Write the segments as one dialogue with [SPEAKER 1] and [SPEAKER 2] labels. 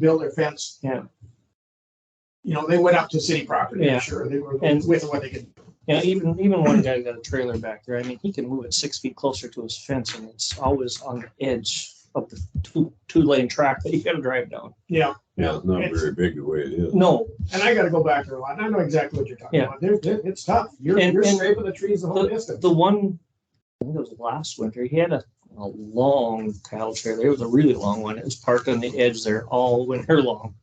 [SPEAKER 1] build their fence.
[SPEAKER 2] Yeah.
[SPEAKER 1] You know, they went up to city property,
[SPEAKER 2] Yeah.
[SPEAKER 1] I'm sure, they were
[SPEAKER 2] And-
[SPEAKER 1] with what they could.
[SPEAKER 2] You know, even, even one guy got a trailer back there. I mean, he can move it six feet closer to his fence and it's always on the edge of the two, two lane track that you gotta drive down.
[SPEAKER 1] Yeah,
[SPEAKER 3] Yeah, it's not
[SPEAKER 1] It's-
[SPEAKER 3] very big the way it is.
[SPEAKER 2] No,
[SPEAKER 1] and I gotta go back there a lot, and I know exactly what you're talking
[SPEAKER 2] Yeah.
[SPEAKER 1] about, They're- they're- it's tough, you're,
[SPEAKER 2] And-
[SPEAKER 1] you're
[SPEAKER 2] and
[SPEAKER 1] scraping the trees the whole distance.
[SPEAKER 2] the one, I think it was last winter, he had a, a long cattle trailer. It was a really long one. It was parked on the edge there all winter long.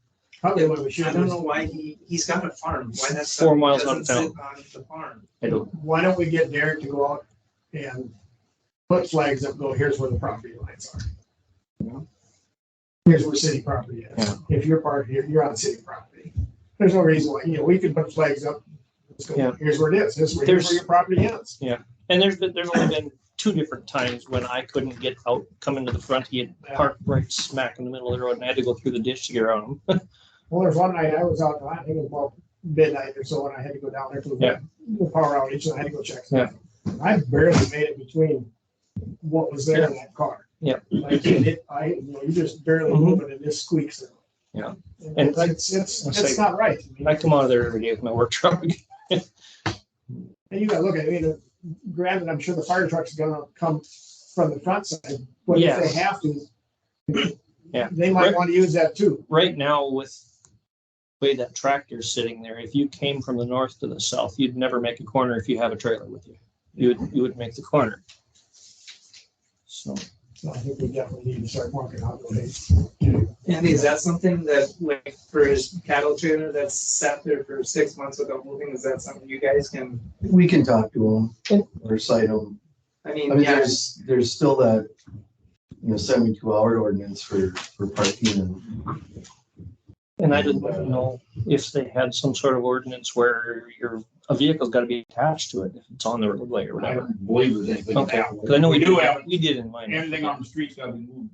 [SPEAKER 1] Probably what we should
[SPEAKER 4] I
[SPEAKER 1] do
[SPEAKER 4] don't
[SPEAKER 1] is,
[SPEAKER 4] know why he, he's got a farm, why that's.
[SPEAKER 2] Four miles out of
[SPEAKER 4] On the farm.
[SPEAKER 2] I don't,
[SPEAKER 1] why don't we get Derek to go out and put flags up, go, here's where the property lines are.
[SPEAKER 2] Yeah.
[SPEAKER 1] Here's where city property
[SPEAKER 2] Yeah.
[SPEAKER 1] is, if you're part, here, you're on city property, there's no reason why, you know, we can put flags up. Let's go,
[SPEAKER 2] Yeah.
[SPEAKER 1] here's where it is, this is where here's
[SPEAKER 2] There's-
[SPEAKER 1] where your property ends.
[SPEAKER 2] and there's been, there's only been two different times when I couldn't get out, come into the front. He had parked right smack in the middle of the road and I had to go through the ditch to get around him.
[SPEAKER 1] Well, there's one night I was out, I think it was about midnight or so, and I had to go down there to the the power outage, and I had to go check. stuff. I barely made it between what was there in that car.
[SPEAKER 2] Yeah. Mm-hmm.
[SPEAKER 1] Like, it, I, you know, you just barely move it and it squeaks. in.
[SPEAKER 2] Yeah.
[SPEAKER 1] And
[SPEAKER 2] And
[SPEAKER 1] it's, it's,
[SPEAKER 2] I'll
[SPEAKER 1] it's
[SPEAKER 2] say-
[SPEAKER 1] not right. I mean,
[SPEAKER 2] I come out of there every day with my work truck.
[SPEAKER 1] And you gotta look at, it, I mean, uh, granted, I'm sure the fire truck's gonna come from the front side, but if
[SPEAKER 2] Yes.
[SPEAKER 1] they have to.
[SPEAKER 2] Yeah.
[SPEAKER 1] They might
[SPEAKER 2] Right.
[SPEAKER 1] wanna use that too.
[SPEAKER 2] right now with the way that tractor's sitting there, if you came from the north to the south, you'd never make a corner if you have a trailer with you. You would, you would make the corner. So,
[SPEAKER 1] So I think we definitely need to start working out ways.
[SPEAKER 4] Andy, is that something that like for his cattle trailer that's sat there for six months without moving, is that something you guys can,
[SPEAKER 5] We can talk to them or cite them.
[SPEAKER 4] I
[SPEAKER 5] I
[SPEAKER 4] mean,
[SPEAKER 5] mean,
[SPEAKER 4] yeah.
[SPEAKER 5] there's, there's still that, you know, seventy-two hour ordinance for, for parking and.
[SPEAKER 2] and I didn't know if they had some sort of ordinance where your, a vehicle's gotta be attached to it if it's on the roadway or
[SPEAKER 6] I
[SPEAKER 2] whatever.
[SPEAKER 6] don't believe there's anything
[SPEAKER 2] Okay,
[SPEAKER 6] that. way.
[SPEAKER 2] Cause I know we
[SPEAKER 6] do
[SPEAKER 2] do,
[SPEAKER 6] have,
[SPEAKER 2] we did in mine.
[SPEAKER 6] everything on the streets gotta be moved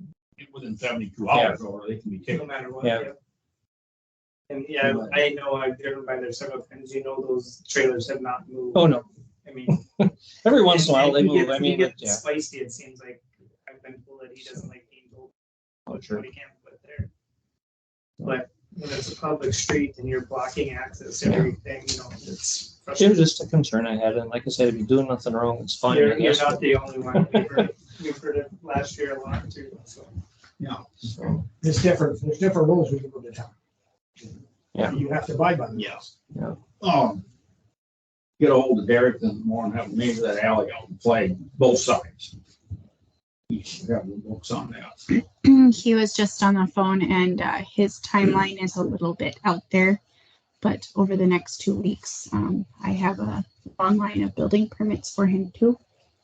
[SPEAKER 6] within seventy-two hours or they can be
[SPEAKER 4] no
[SPEAKER 6] taken.
[SPEAKER 4] matter what.
[SPEAKER 2] Yeah.
[SPEAKER 4] And yeah, I know I've driven by there several times, you know, those trailers have not moved.
[SPEAKER 2] Oh, no.
[SPEAKER 4] I mean.
[SPEAKER 2] Every once in a while
[SPEAKER 4] and
[SPEAKER 2] they
[SPEAKER 4] he
[SPEAKER 2] move.
[SPEAKER 4] gets-
[SPEAKER 2] I
[SPEAKER 4] he
[SPEAKER 2] mean,
[SPEAKER 4] gets
[SPEAKER 2] yeah.
[SPEAKER 4] Spicy, it seems like, I've been told that he doesn't like being told
[SPEAKER 2] Oh,
[SPEAKER 4] what
[SPEAKER 2] sure.
[SPEAKER 4] he can put there. But when it's a public street and you're blocking access to everything, you know, it's
[SPEAKER 2] It was
[SPEAKER 4] frustrating.
[SPEAKER 2] just a concern I had. And like I said, if you're doing nothing wrong, it's fine. I
[SPEAKER 4] You're, you're
[SPEAKER 2] guess.
[SPEAKER 4] not the only one, we've heard, we've heard it last year a lot too, so.
[SPEAKER 5] so.
[SPEAKER 1] There's different, there's different rules when you go to town.
[SPEAKER 2] Yeah.
[SPEAKER 1] You have to abide by them.
[SPEAKER 6] Yes. Um, get a hold of Derek in the morning, have him measure that alley out and play both sides. He should have the books on that.
[SPEAKER 7] he was just on the phone and uh, his timeline is a little bit out there. But over the next two weeks, um, I have a long line of building permits for him too.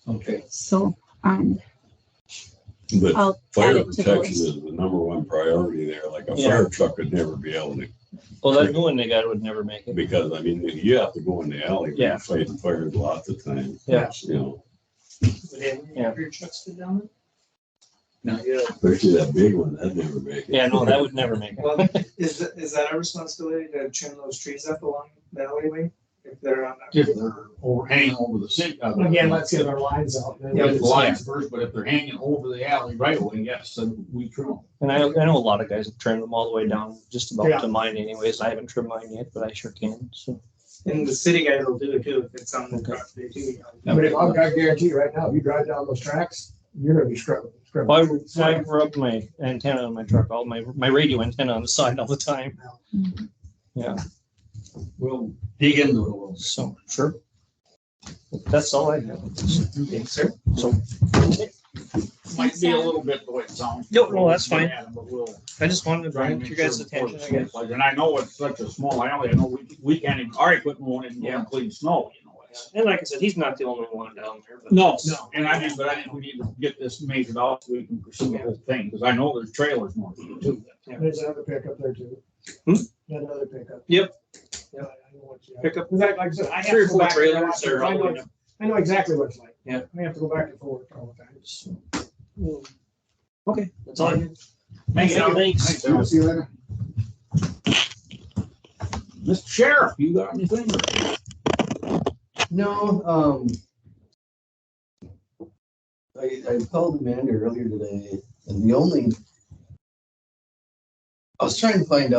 [SPEAKER 6] Okay.
[SPEAKER 7] So um,
[SPEAKER 3] But
[SPEAKER 7] I'll add
[SPEAKER 3] fire
[SPEAKER 7] it to the
[SPEAKER 3] protection
[SPEAKER 7] list.
[SPEAKER 3] is the number one priority there. Like a
[SPEAKER 2] Yeah.
[SPEAKER 3] fire truck would never be able to,
[SPEAKER 2] Well, that new one they got would never make it.
[SPEAKER 3] because I mean, you have to go in the alley. when you're
[SPEAKER 2] Yeah.
[SPEAKER 3] Fighting fires lots of times.
[SPEAKER 2] Yeah.
[SPEAKER 3] You know,
[SPEAKER 4] Would any
[SPEAKER 2] Yeah.
[SPEAKER 4] of your trucks go down?
[SPEAKER 6] No.
[SPEAKER 4] Yeah.
[SPEAKER 3] especially that big one, that'd never make it.
[SPEAKER 2] Yeah, no, that would never make it.
[SPEAKER 4] Well, is, th- is that our responsibility to trim those trees up along the alleyway if they're on that?
[SPEAKER 6] If they're over, hanging over the city. uh,
[SPEAKER 1] Again, let's get our lines out. then
[SPEAKER 6] Yeah,
[SPEAKER 1] we'll
[SPEAKER 6] the
[SPEAKER 1] decide.
[SPEAKER 6] lines first, but if they're hanging over the alley right away, yes, then we trim them.
[SPEAKER 2] And I, I know a lot of guys have trimmed them all the way down, just
[SPEAKER 1] Yeah.
[SPEAKER 2] about to mine anyways. I haven't trimmed mine yet, but I sure can, so.
[SPEAKER 4] And the city guys will do it too if it's on the
[SPEAKER 2] Okay.
[SPEAKER 4] property too. you know.
[SPEAKER 1] But if I've got guarantee right now, if you drive down those tracks, you're gonna be scrubbing. scrubbing.
[SPEAKER 2] Why, why rub my antenna on my truck, all my, my radio antenna on the side all the time,
[SPEAKER 6] We'll dig into it a little.
[SPEAKER 2] so, sure. That's all I have. Thanks, sir. So,
[SPEAKER 6] Might be a little bit the way it sounds.
[SPEAKER 2] No, no, that's fine.
[SPEAKER 6] Yeah, But we'll.
[SPEAKER 2] I just wanted to bring it to your guys'
[SPEAKER 6] Try and
[SPEAKER 2] attention,
[SPEAKER 6] make
[SPEAKER 2] I
[SPEAKER 6] sure
[SPEAKER 2] guess.
[SPEAKER 6] before it's- And I know it's such a small alley, I know we, we can't even, our equipment won't even go and clean snow, you know. it's-
[SPEAKER 2] And like I said, he's not the only one down there, but.
[SPEAKER 6] No, no, and I mean, but I think we need to get this measured out so we can pursue the whole thing, because I know there's trailers north of it too.
[SPEAKER 1] There's another pickup there too.
[SPEAKER 2] Hmm?
[SPEAKER 1] Another pickup.
[SPEAKER 2] Yep.
[SPEAKER 1] Yeah, I know what you-
[SPEAKER 2] Pickup.
[SPEAKER 1] In fact, Like I said, I have
[SPEAKER 2] Three
[SPEAKER 1] to
[SPEAKER 2] or
[SPEAKER 1] go
[SPEAKER 2] four
[SPEAKER 1] back there.
[SPEAKER 2] trailers are
[SPEAKER 1] I
[SPEAKER 2] all
[SPEAKER 1] know-
[SPEAKER 2] in them.
[SPEAKER 1] I know exactly what it's like.
[SPEAKER 2] Yeah.
[SPEAKER 1] I have to go back and forth all the time.
[SPEAKER 2] Okay, that's all I have.
[SPEAKER 6] Thanks, Al.
[SPEAKER 2] Thanks.
[SPEAKER 6] Al.
[SPEAKER 1] See you later.
[SPEAKER 6] Mr. Sheriff, you got anything?
[SPEAKER 5] No, um. I, I called Amanda earlier today and the only I was trying to find out